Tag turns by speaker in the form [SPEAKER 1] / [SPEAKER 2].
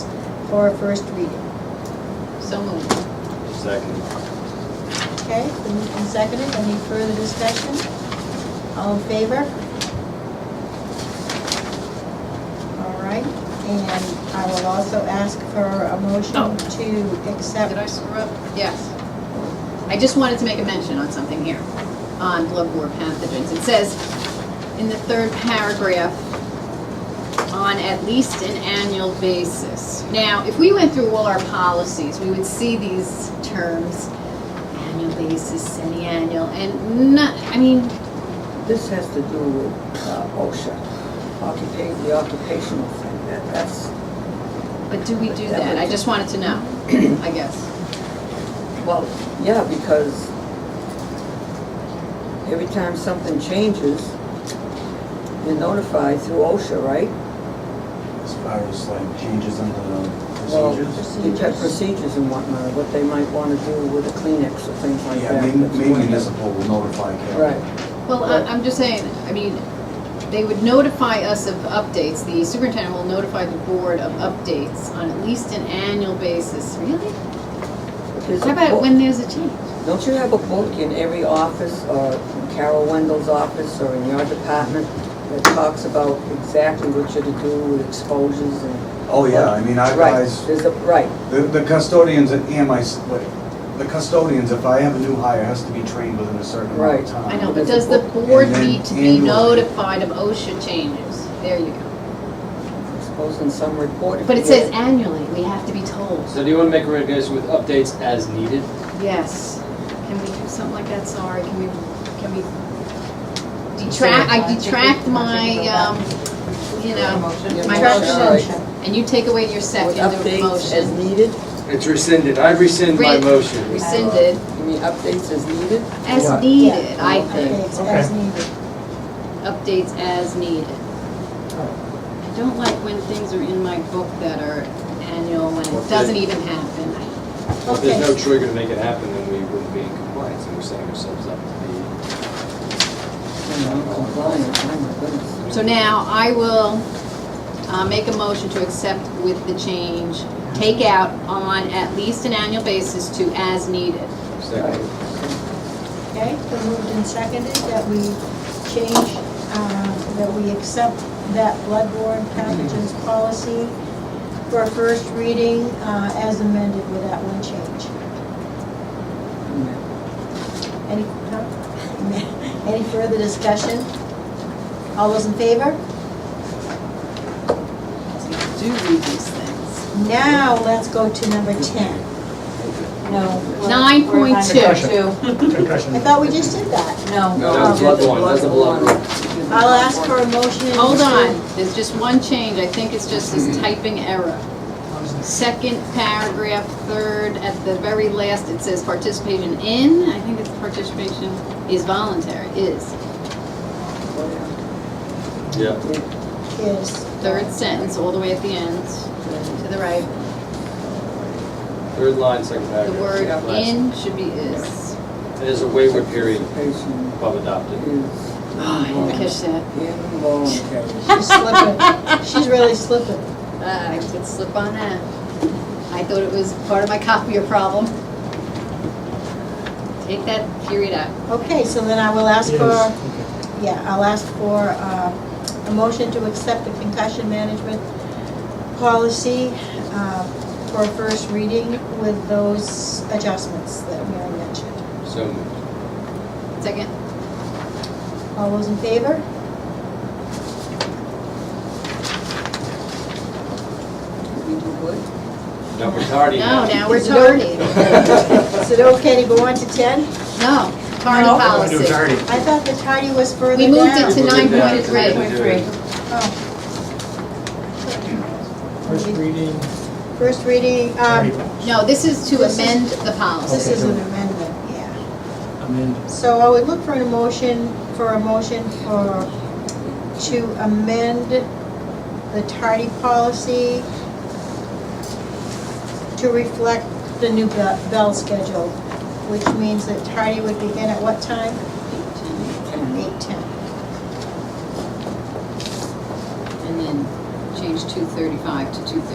[SPEAKER 1] for a first reading.
[SPEAKER 2] So moved.
[SPEAKER 3] Second.
[SPEAKER 1] Okay, it's been moved and seconded, any further discussion? All in favor? All right, and I will also ask for a motion
[SPEAKER 2] Oh.
[SPEAKER 1] to accept.
[SPEAKER 2] Did I screw up? Yes. I just wanted to make a mention on something here, on bloodborne pathogens. It says, in the third paragraph, on at least an annual basis. Now, if we went through all our policies, we would see these terms, annual basis, semi-annual, and not, I mean,
[SPEAKER 4] This has to do with uh, OSHA, occupa- the occupational thing, that, that's,
[SPEAKER 2] but do we do that? I just wanted to know, I guess.
[SPEAKER 4] well, yeah, because every time something changes, you're notified through OSHA, right?
[SPEAKER 3] As far as like changes in the
[SPEAKER 4] Well,
[SPEAKER 3] procedures?
[SPEAKER 4] You have procedures and whatnot, what they might wanna do with the Kleenex or things like
[SPEAKER 3] Yeah,
[SPEAKER 4] that.
[SPEAKER 3] main
[SPEAKER 4] That's
[SPEAKER 3] main
[SPEAKER 4] one-
[SPEAKER 3] municipal will notify Carol.
[SPEAKER 4] Right,
[SPEAKER 2] Well, I- I'm just saying, I mean, they would notify us of updates, the superintendent will notify the board of updates on at least an annual basis, really?
[SPEAKER 4] But there's
[SPEAKER 2] How
[SPEAKER 4] a
[SPEAKER 2] about
[SPEAKER 4] book-
[SPEAKER 2] when there's a change?
[SPEAKER 4] Don't you have a book in every office, or in Carol Wendell's office, or in your department, that talks about exactly what you're to do with exposures and...
[SPEAKER 3] Oh, yeah, I mean, I
[SPEAKER 4] Right,
[SPEAKER 3] guys,
[SPEAKER 4] there's a, right,
[SPEAKER 3] the the custodians at E EMI, what- the custodians, if I have a new hire, has to be trained within a certain amount of
[SPEAKER 4] Right.
[SPEAKER 3] time.
[SPEAKER 2] I know, but does the board need to be
[SPEAKER 3] And then annually.
[SPEAKER 2] notified of OSHA changes? There you go.
[SPEAKER 4] exposed in some report. if
[SPEAKER 2] But it
[SPEAKER 4] you-
[SPEAKER 2] says annually, we have to be told.
[SPEAKER 5] So do you want to make a recommendation with updates as needed?
[SPEAKER 2] Yes. Can we do something like that, sorry, can we, can we detract, I detract my, um, you know,
[SPEAKER 4] Yeah,
[SPEAKER 2] my
[SPEAKER 4] motion,
[SPEAKER 2] motion.
[SPEAKER 4] all right.
[SPEAKER 2] and you take away your
[SPEAKER 4] With
[SPEAKER 2] second of the
[SPEAKER 4] updates as
[SPEAKER 2] motion.
[SPEAKER 4] needed,
[SPEAKER 5] It's rescinded. I rescind my
[SPEAKER 2] Right.
[SPEAKER 5] motion.
[SPEAKER 2] Rescinded
[SPEAKER 4] you mean updates as needed?
[SPEAKER 2] as
[SPEAKER 3] What?
[SPEAKER 2] needed, I think.
[SPEAKER 1] Updates as needed.
[SPEAKER 2] Updates as needed. I don't like when things are in my book that are annual when
[SPEAKER 5] Well,
[SPEAKER 2] it
[SPEAKER 5] they-
[SPEAKER 2] doesn't even happen.
[SPEAKER 5] If Uh, there's no
[SPEAKER 1] Okay.
[SPEAKER 5] trigger to make it happen, then we wouldn't be in compliance, and we're setting ourselves up to
[SPEAKER 4] You know, compliant, oh my goodness.
[SPEAKER 2] So now I will uh, make a motion to accept with the change, take out on at least an annual basis to as needed.
[SPEAKER 5] be second.
[SPEAKER 1] Okay, so moved and seconded that we change, uh, that we accept that bloodborne pathogens policy for a first reading uh, as amended with that one change. Any, no? any further discussion? All those in favor?
[SPEAKER 2] Do read these things.
[SPEAKER 1] Now, let's go to number 10.
[SPEAKER 6] No. we're-
[SPEAKER 2] Nine
[SPEAKER 6] we're
[SPEAKER 2] point
[SPEAKER 6] nine
[SPEAKER 2] two.
[SPEAKER 6] two.
[SPEAKER 1] I thought we just did that.
[SPEAKER 6] No.
[SPEAKER 5] No, that's blood one, that's a blood one.
[SPEAKER 1] I'll ask for a motion. and-
[SPEAKER 2] Hold on, there's just one change, I think it's just this typing error. Second paragraph, third, at the very last, it says participation in, I think it's participation is voluntary, is.
[SPEAKER 5] Yeah.
[SPEAKER 1] Yes.
[SPEAKER 2] Third sentence, all the way at the end, to the right,
[SPEAKER 5] Third line, second
[SPEAKER 2] the word
[SPEAKER 5] paragraph. Last.
[SPEAKER 2] in should be is.
[SPEAKER 5] There's a waiver period
[SPEAKER 4] Participation
[SPEAKER 5] above adopted.
[SPEAKER 4] is
[SPEAKER 2] Oh, I didn't catch that.
[SPEAKER 4] involuntary.
[SPEAKER 1] She's slipping. She's really slipping.
[SPEAKER 2] Ah, I could slip on that. I thought it was part of my copier problem. Take that period out.
[SPEAKER 1] Okay, so then I will ask
[SPEAKER 7] Yes,
[SPEAKER 1] for, yeah, I'll ask for uh, a motion to accept the concussion management policy uh, for first reading with those adjustments that Mary mentioned.
[SPEAKER 5] So moved.
[SPEAKER 2] Second,
[SPEAKER 1] All those in favor?
[SPEAKER 4] Did we do good?
[SPEAKER 5] Now, we're tardy
[SPEAKER 2] no,
[SPEAKER 5] now.
[SPEAKER 2] now we're
[SPEAKER 1] Is it over?
[SPEAKER 2] tardy.
[SPEAKER 1] Is it okay to go on to 10?
[SPEAKER 2] No, tardy
[SPEAKER 6] No.
[SPEAKER 2] policy.
[SPEAKER 1] I thought the tardy was further
[SPEAKER 2] We
[SPEAKER 1] down.
[SPEAKER 2] moved it to
[SPEAKER 5] We'll
[SPEAKER 2] nine
[SPEAKER 5] do that.
[SPEAKER 2] point three.
[SPEAKER 1] Oh,
[SPEAKER 7] First reading.
[SPEAKER 1] First reading, um,
[SPEAKER 2] No, this is to
[SPEAKER 1] This is-
[SPEAKER 2] amend the
[SPEAKER 1] this
[SPEAKER 2] policy.
[SPEAKER 1] is an amendment, yeah.
[SPEAKER 7] Amendment.
[SPEAKER 1] So I would look for a motion, for a motion for, to amend the tardy policy to reflect the new bell bell schedule, which means that tardy would begin at what time?
[SPEAKER 4] Mm-hmm.
[SPEAKER 1] Eight ten.
[SPEAKER 2] And then change two thirty-five to two thirty.